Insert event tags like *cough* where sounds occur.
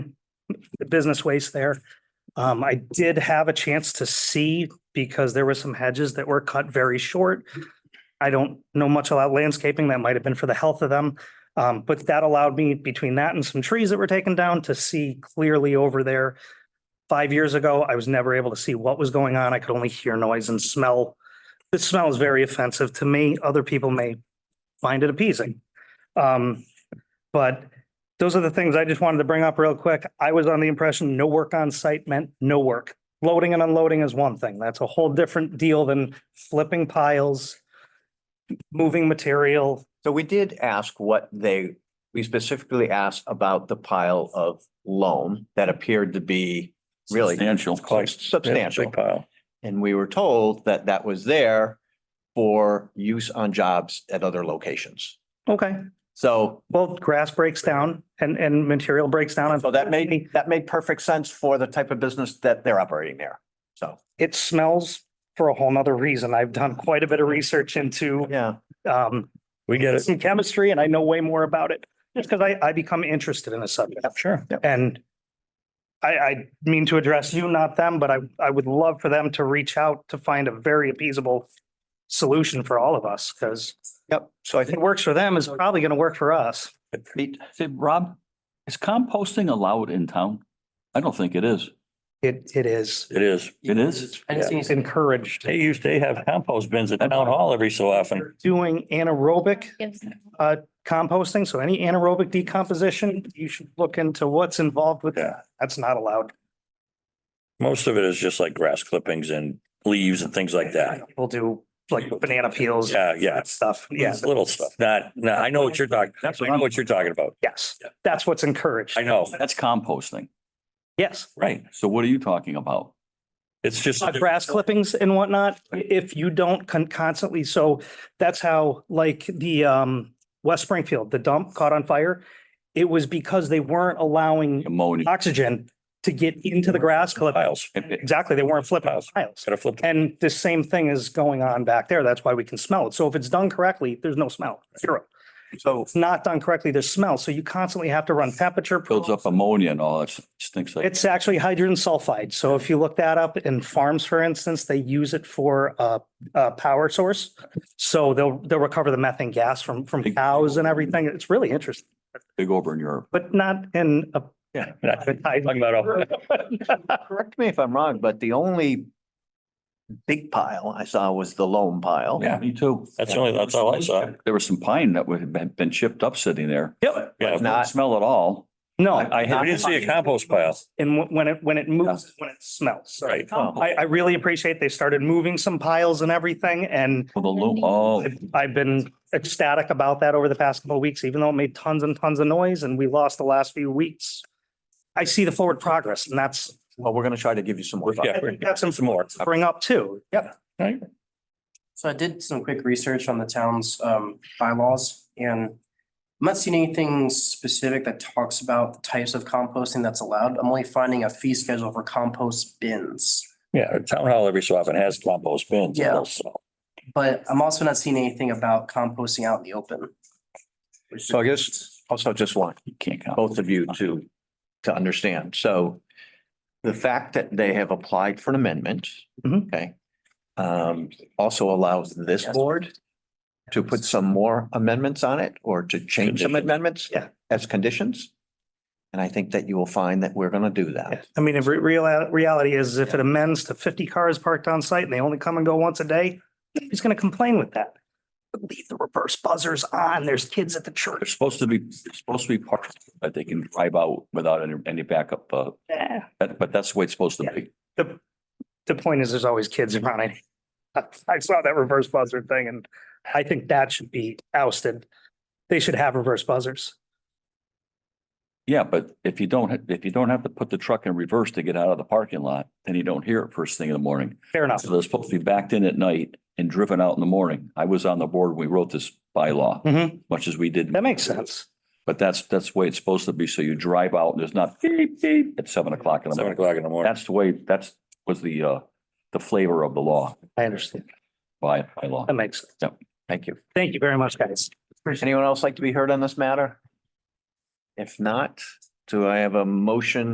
the business waste there. Um, I did have a chance to see because there were some hedges that were cut very short. I don't know much about landscaping. That might have been for the health of them. Um, but that allowed me between that and some trees that were taken down to see clearly over there. Five years ago, I was never able to see what was going on. I could only hear noise and smell. The smell is very offensive to me. Other people may find it appeasing. Um, but those are the things I just wanted to bring up real quick. I was on the impression no work on site meant no work. Loading and unloading is one thing. That's a whole different deal than flipping piles, moving material. So we did ask what they, we specifically asked about the pile of loam that appeared to be really Substantial. quite substantial. Big pile. And we were told that that was there for use on jobs at other locations. Okay, So, well, grass breaks down and, and material breaks down. so that made, that made perfect sense for the type of business that they're operating there. So, It smells for a whole nother reason. I've done quite a bit of research into, yeah, um, We get it. some chemistry and I know way more about it just because I, I become interested in the subject. Sure. And I, I mean to address you, not them, but I, I would love for them to reach out to find a very appeasable solution for all of us, because yep. So I if it think works for them, it's probably going to work for us. we, Say, Rob, is composting allowed in town? I don't think it is. It, it is. It is. It is? I just It's need encouraged. They used, they have compost bins at town hall every so often. Doing anaerobic uh, gives composting, so any anaerobic decomposition, you should look into what's involved with that. That's not allowed. Most of it is just like grass clippings and leaves and things like that. People do like banana peels. Yeah, yeah. that Stuff, yeah, It's little stuff. Not, no, I know what you're talking, That's I what know I'm- what you're talking about. yes, that's what's encouraged. I know, That's composting. Yes. right. So what are you talking about? It's just. uh, grass clippings and whatnot, i- if you don't con- constantly, so that's how like the um West Springfield, the dump caught on fire. It was because they weren't allowing Ammonia. oxygen to get into the grass clip. Piles. Exactly, they weren't flipping Piles. tiles. Gotta flip. them. And the same thing is going on back there. That's why we can smell it. So if it's done correctly, there's no smell, zero. so It's not done correctly, there's smell. So you constantly have to run temperature. Builds up ammonia and all that stinks like. It's actually hydrogen sulfide. So if you look that up in farms, for instance, they use it for a, a power source. So they'll, they'll recover the methane gas from, from cows and everything. It's really interesting, Big over in Europe. but not in a. Yeah. not- Talking about all. correct me if I'm wrong, but the only big pile I saw was the loam pile. Yeah. Me too. That's the only, that's all I saw. There was some pine that would had been chipped up sitting there. Yep. Yeah. Did Not smell at all. *laughs* No, I, I We had. didn't see a compost pile. and wh- when it, when it moves, when it smells. So Right. Oh. Compost. I, I really appreciate they started moving some piles and everything and Well, the loom, oh, I've- I've been ecstatic about that over the past couple of weeks, even though it made tons and tons of noise and we lost the last few weeks. I see the forward progress and that's, Well, we're gonna try to give you some more. Yeah. that's some Some more. bring up too. So I did some quick research on the town's um bylaws and I'm not seeing anything specific that talks about the types of composting that's allowed. I'm only finding a fee schedule for compost bins. Yeah, town hall every so often has compost bins. Yeah. also. But I'm also not seeing anything about composting out in the open. So I guess also just want you can't count. both of you to, to understand. So the fact that they have applied for an amendment, Mhm. okay, um, also allows this board to put some more amendments on it or to change some Conditions. amendments Yeah. as conditions. And I think that you will find that we're gonna do that. I mean, if re- real, reality is if it amends to fifty cars parked on site and they only come and go once a day, who's gonna complain with that? But Leave the reverse buzzers on. There's kids at the They're church. supposed to be, they're supposed to be parked, that they can drive out without any, any backup, uh, Eh, that- but that's the way it's supposed to be. The, the point is, there's always kids around. *laughs* I- I saw that reverse buzzer thing and I think that should be ousted. They should have reverse buzzers. Yeah, but if you don't, ha- if you don't have to put the truck in reverse to get out of the parking lot, then you don't hear it first thing in the morning. Fair enough. So they're supposed to be backed in at night and driven out in the morning. I was on the board, when we wrote this bylaw, Mm-hmm. Mhm. much as we did. That makes sense. But that's, that's the way it's supposed to be. So you drive out and there's not beep, beep at seven o'clock in the Seven morning. o'clock in the morning. That's the way, that's, was the, uh, the flavor of the law I understand. by, by law. That makes, sense. Thank you. thank you very much, guys. Anyone else like to be heard on this matter? If not, do I have a motion